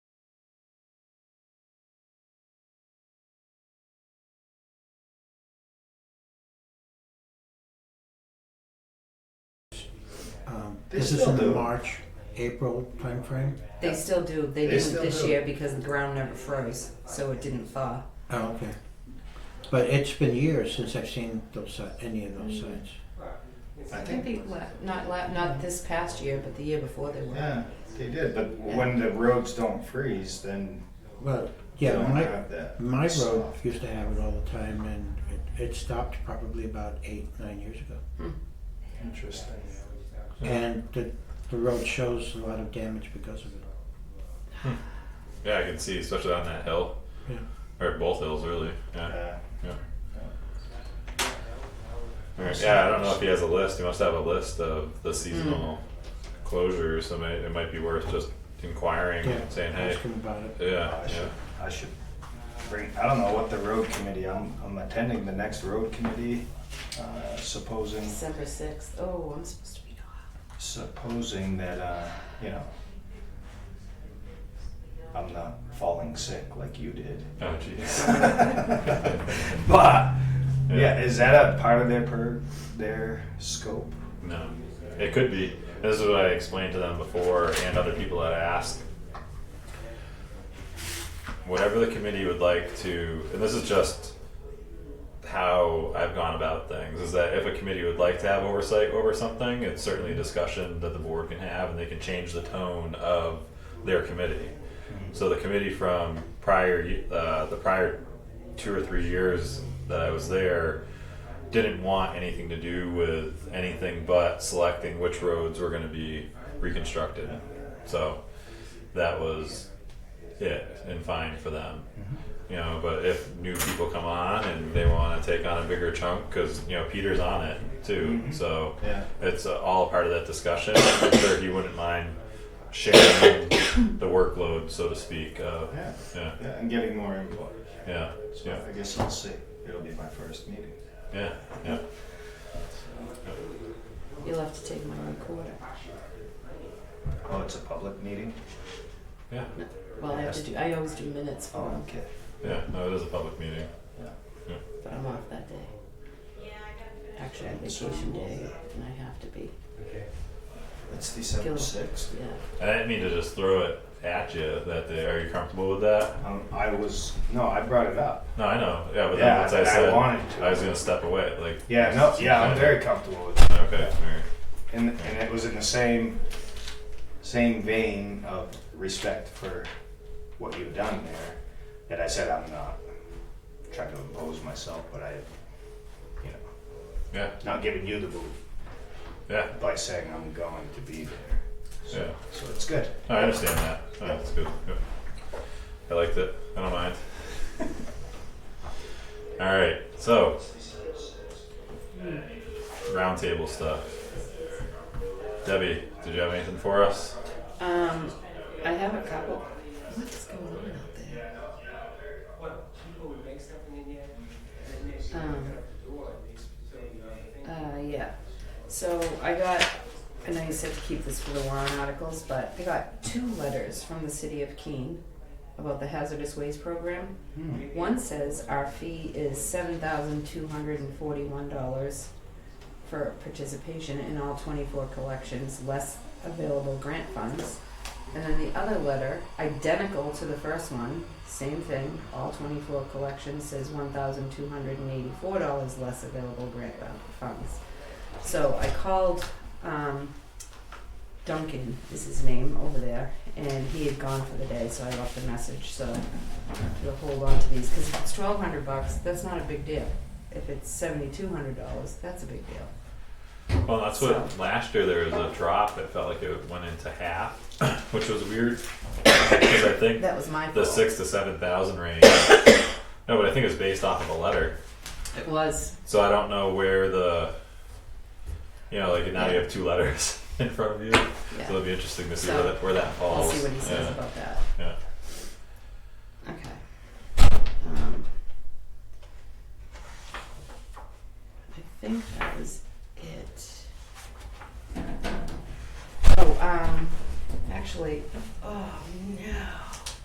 They This Um, is still in the do. March, April timeframe? They still do. They, They didn't still this do. year because the ground never froze, so it didn't thaw. Oh, okay. But it's been years since I've seen those, si- any of those signs. I I think think they la- not la- not this past year, but the year before they were. Yeah, they did, but when the roads don't freeze, then Well, you yeah, don't my, have that. my road soft. used to have it all the time and it, it stopped probably about eight, nine years ago. Interesting. And the, the road shows a lot of damage because of it. Yeah, I can see, especially on that hill. Yeah. Or both hills, really. Yeah. Yeah. Alright, Yeah, I don't know if he has a list. He must have a list of the seasonal closures, so may, it might be worth just inquiring Yeah, and saying, hey, ask them about it. yeah, I should, yeah. I should bring, I don't know what the road committee, I'm, I'm attending the next road committee, uh, supposing, December sixth. Oh, I'm supposed to be gone. supposing that, uh, you know, I'm not falling sick like you did. Oh, jeez. But, Yeah. yeah, is that a part of their per, their scope? No, it could be. This is what I explained to them before and other people that I asked. Whatever the committee would like to, and this is just how I've gone about things, is that if a committee would like to have oversight over something, it's certainly a discussion that the board can have and they can change the tone of their committee. So the committee from prior, ye- uh, the prior two or three years that I was there, didn't want anything to do with anything but selecting which roads were going to be reconstructed. So that was it and fine for them. You know, but if new people come on and they want to take on a bigger chunk, because you know Peter's on it too, so Yeah. it's uh, all a part of that discussion. I'm sure he wouldn't mind sharing the workload, so to speak. Of, Yeah. yeah, Yeah, and getting more input. yeah, So yeah, I guess I'll see. It'll be my first meeting. yeah, yeah. You'll have to take my recorder. Oh, it's a public meeting? yeah. Well, I have to do. I always do minutes for Oh, them, okay. Yeah, no, it is a public meeting. but I'm off that day. Actually, on vacation day, and I have to be. It's December Cool. sixth. Yeah. I didn't mean to just throw it at you that day. Are you comfortable with that? Um, I was, no, I brought it up. No, I know. Yeah, but Yeah, then once I I said wanted to. I was gonna step away. Like Yeah, no, it's yeah, I'm kinda- very comfortable with it. okay. All right. And, and it was in the same, same vein of respect for what you've done there that I said I'm not trying to impose myself, but I, you know, Yeah, not giving you the boot yeah, by saying I'm going to be there. So, yeah. so it's good. No, I understand that. No, that's good. Good. I liked it. I don't mind. All right. So roundtable stuff. Debbie, did you have anything for us? Um, I have a couple. What is going on out there? Um, uh, yeah. So I got, I know you said to keep this for the warrant articles, but I got two letters from the city of Keene about the hazardous waste program. Hmm. One says our fee is seven thousand two hundred and forty-one dollars for participation in all twenty-four collections, less available grant funds. And then the other letter, identical to the first one, same thing, all twenty-four collections says one thousand two hundred and eighty-four dollars less available grant bu- funds. So I called, um, Duncan is his name over there, and he had gone for the day, so I left a message, so you'll hold on to these, cause if it's twelve hundred bucks, that's not a big deal. If it's seventy-two hundred dollars, that's a big deal. Well, that's what last year there was a drop. It felt like it went into half, which was weird because I think That was my fault. the six to seven thousand range. no, but I think it was based off of a letter, It was. so I don't know where the you know like now you have two letters in front of you, so Yeah. it'll be interesting to see So, where that where that I'll falls. see what he says yeah. about that. yeah. Um, Oh, um,